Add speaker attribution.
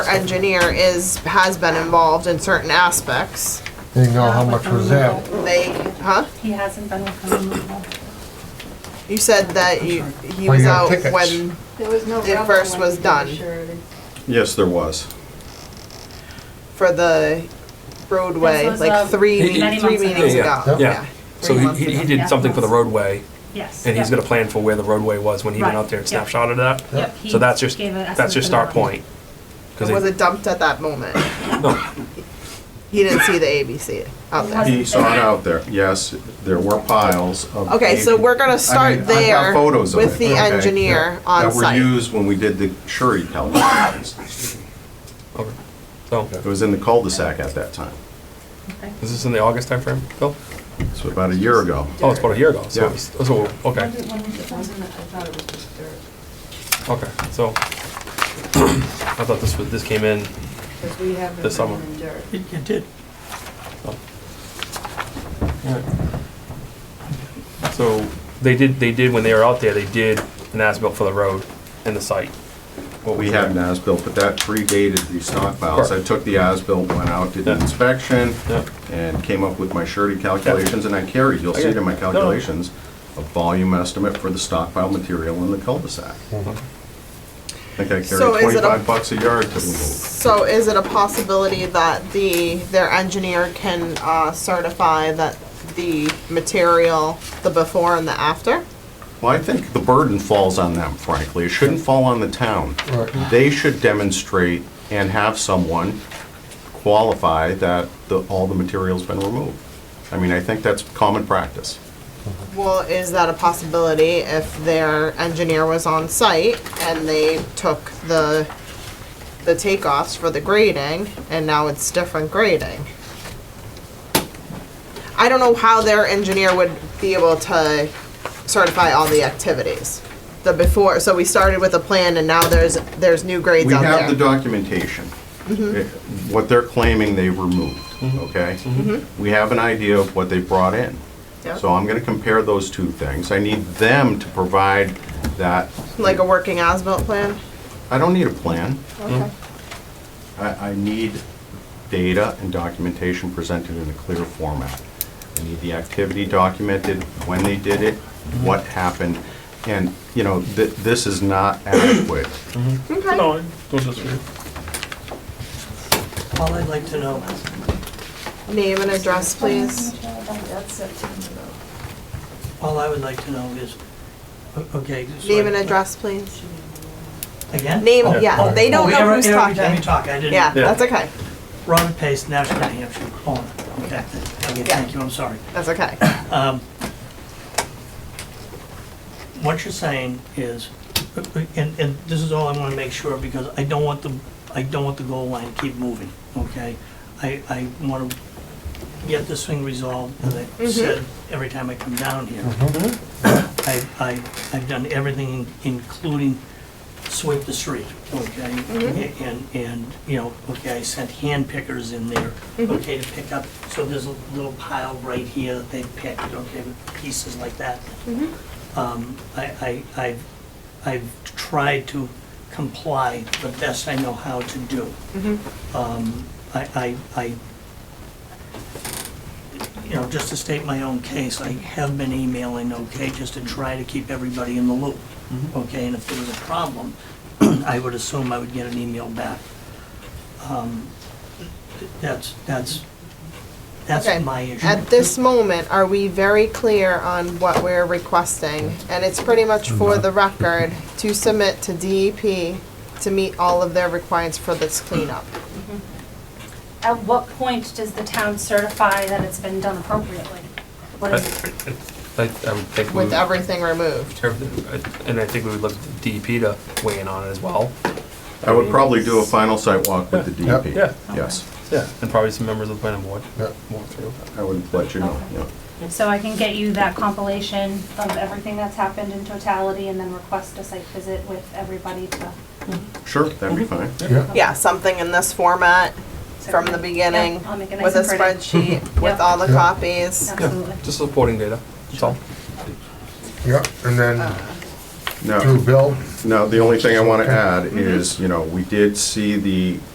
Speaker 1: engineer is, has been involved in certain aspects.
Speaker 2: You know how much was that?
Speaker 1: They, huh?
Speaker 3: He hasn't been with the removal.
Speaker 1: You said that you, he
Speaker 2: Well,
Speaker 1: was
Speaker 2: you have
Speaker 1: out
Speaker 2: tickets.
Speaker 1: when,
Speaker 4: There was no
Speaker 1: It
Speaker 4: rubble
Speaker 1: first
Speaker 4: when
Speaker 1: was
Speaker 4: we
Speaker 1: done.
Speaker 4: insured it.
Speaker 5: Yes, there was.
Speaker 1: for the roadway,
Speaker 3: This was,
Speaker 1: like
Speaker 3: um,
Speaker 1: three,
Speaker 6: He-
Speaker 1: me-
Speaker 3: many
Speaker 1: three
Speaker 3: months ago.
Speaker 1: meetings
Speaker 6: Yeah,
Speaker 1: ago.
Speaker 2: yeah.
Speaker 6: Yeah, so
Speaker 1: Three
Speaker 6: he-
Speaker 1: months
Speaker 6: he, he
Speaker 1: ago.
Speaker 6: did something for the roadway,
Speaker 3: Yes.
Speaker 6: and he's
Speaker 3: yep.
Speaker 6: got a plan for where the roadway was when he went
Speaker 3: Right,
Speaker 6: out there and
Speaker 3: yeah.
Speaker 6: snapshotted that.
Speaker 3: Yep, he
Speaker 6: So that's your,
Speaker 3: gave an
Speaker 6: that's your
Speaker 3: estimate for the
Speaker 6: start
Speaker 3: road.
Speaker 6: point. 'Cause
Speaker 1: Was
Speaker 6: they-
Speaker 1: it dumped at that moment?
Speaker 6: no,
Speaker 1: He didn't see the ABC out there.
Speaker 5: He saw it out there. Yes, there were piles of.
Speaker 1: Okay, so we're gonna
Speaker 5: I mean,
Speaker 1: start
Speaker 5: I've got
Speaker 1: there
Speaker 5: photos of
Speaker 1: with
Speaker 5: it,
Speaker 1: the
Speaker 5: okay,
Speaker 1: engineer
Speaker 5: yeah,
Speaker 1: on
Speaker 5: That were
Speaker 1: site.
Speaker 5: used when we did the Shuri calculations.
Speaker 6: okay. So,
Speaker 5: It was in the cul-de-sac at that time.
Speaker 6: is this in the August timeframe, Phil?
Speaker 5: So about a year ago.
Speaker 6: Oh, it's about a year ago, so,
Speaker 5: Yeah.
Speaker 6: it's- so, okay,
Speaker 4: When did- when was it done? I thought it was just dirt.
Speaker 6: okay, so, I thought this was, this came in,
Speaker 4: Because we haven't
Speaker 6: This summer.
Speaker 4: been in dirt.
Speaker 7: It it did.
Speaker 6: so, they did, they did, when they were out there, they did an as-built for the road and the site. What
Speaker 5: We
Speaker 6: was
Speaker 5: had an
Speaker 6: there.
Speaker 5: as-built, but that predated the stockpiles. I took the as-built, went out, did the
Speaker 6: Yeah.
Speaker 5: inspection,
Speaker 6: Yeah.
Speaker 5: and came up with my surety calculations, and I carried, you'll see it in my
Speaker 6: Okay. No.
Speaker 5: calculations, a volume estimate for the stockpile material in the cul-de-sac. I think I
Speaker 1: So
Speaker 5: carried
Speaker 1: is it a-
Speaker 5: twenty-five bucks a yard to move.
Speaker 1: So is it a possibility that the, their engineer can uh, certify that the material, the before and the after?
Speaker 5: Well, I think the burden falls on them, frankly. It shouldn't fall on the town.
Speaker 2: Right.
Speaker 5: They should demonstrate and have someone qualify that the, all the material's been removed. I mean, I think that's common practice.
Speaker 1: Well, is that a possibility if their engineer was on site and they took the, the takeoffs for the grading and now it's different grading? I don't know how their engineer would be able to certify all the activities. The before, so we started with a plan and now there's, there's new grades
Speaker 5: We
Speaker 1: out
Speaker 5: have the
Speaker 1: there. Mm-hmm.
Speaker 5: documentation. Eh, What they're claiming they removed, okay?
Speaker 1: Mm-hmm.
Speaker 5: We have an idea of what they brought in.
Speaker 1: Yeah.
Speaker 5: So I'm gonna compare those two things. I need them to provide that,
Speaker 1: Like a working as-built plan?
Speaker 5: I don't need a plan.
Speaker 1: Okay.
Speaker 5: I, I need data and documentation presented in a clear format. I need the activity documented, when they did it, what happened, and, you know, th- this is not adequate.
Speaker 1: Okay.
Speaker 6: No, it was just weird.
Speaker 7: All I'd like to know,
Speaker 1: Name and address, please.
Speaker 4: That's September though.
Speaker 7: all I would like to know is, o- okay. so
Speaker 1: Name and
Speaker 7: I-
Speaker 1: address, please.
Speaker 7: Again?
Speaker 1: Name,
Speaker 7: Oh,
Speaker 1: yeah, they
Speaker 7: oh,
Speaker 1: don't know
Speaker 7: every-
Speaker 1: who's
Speaker 7: Every time
Speaker 1: talking.
Speaker 7: you talk, I didn't.
Speaker 1: Yeah,
Speaker 6: Yeah.
Speaker 1: that's okay,
Speaker 7: Robert Pace, National New Hampshire, owner. Okay, okay, thank you, I'm sorry.
Speaker 1: that's okay.
Speaker 7: Um, What you're saying is, and, and this is all I want to make sure, because I don't want the, I don't want the goal line to keep moving, okay? I, I want to get this thing resolved, as I said, every time I come down here. I, I, I've done everything, including sweep the street, okay? And, and, you know, okay, I sent hand pickers in there, okay, to pick up, so there's a little pile right here that they picked, okay, with pieces like that. Um, I, I, I've, I've tried to comply the best I know how to do.
Speaker 1: Mm-hmm,
Speaker 7: Um, I, I, I you know, just to state my own case, I have been emailing, okay, just to try to keep everybody in the loop, okay? And if there was a problem, I would assume I would get an email back. Um, That's, that's,
Speaker 1: Okay.
Speaker 7: that's my issue.
Speaker 1: At this moment, are we very clear on what we're requesting? And it's pretty much for the record, to submit to DEP to meet all of their requirements for this cleanup.
Speaker 3: At what point does the town certify that it's been done appropriately? What is it?
Speaker 6: I, I would think. we
Speaker 1: With
Speaker 6: would-
Speaker 7: Mm.
Speaker 1: everything removed.
Speaker 6: everything, uh, And I think we would look at the DEP to weigh in on it as well.
Speaker 5: I would probably do a final site walk with the
Speaker 2: Yeah.
Speaker 5: DEP.
Speaker 6: Yeah.
Speaker 5: Yes,
Speaker 6: Yeah. And probably some members of the planning board
Speaker 2: Yeah.
Speaker 6: walk through.
Speaker 5: I would let you know, yeah.
Speaker 3: So I can get you that compilation of everything that's happened in totality and then request a site visit with everybody to.
Speaker 5: Sure, that'd be fine.
Speaker 2: Yeah,
Speaker 1: Yeah, something in this format from the beginning,
Speaker 3: Yeah, I'll make it nice
Speaker 1: with a
Speaker 3: and pretty.
Speaker 1: spreadsheet, with
Speaker 3: Yep.
Speaker 1: all the
Speaker 2: Yeah.
Speaker 1: copies.
Speaker 3: Absolutely.
Speaker 6: Just supporting data, that's all.
Speaker 2: yeah, and then
Speaker 5: Now,
Speaker 2: through Bill.
Speaker 5: now, the only thing I want to add is, you know, we did see the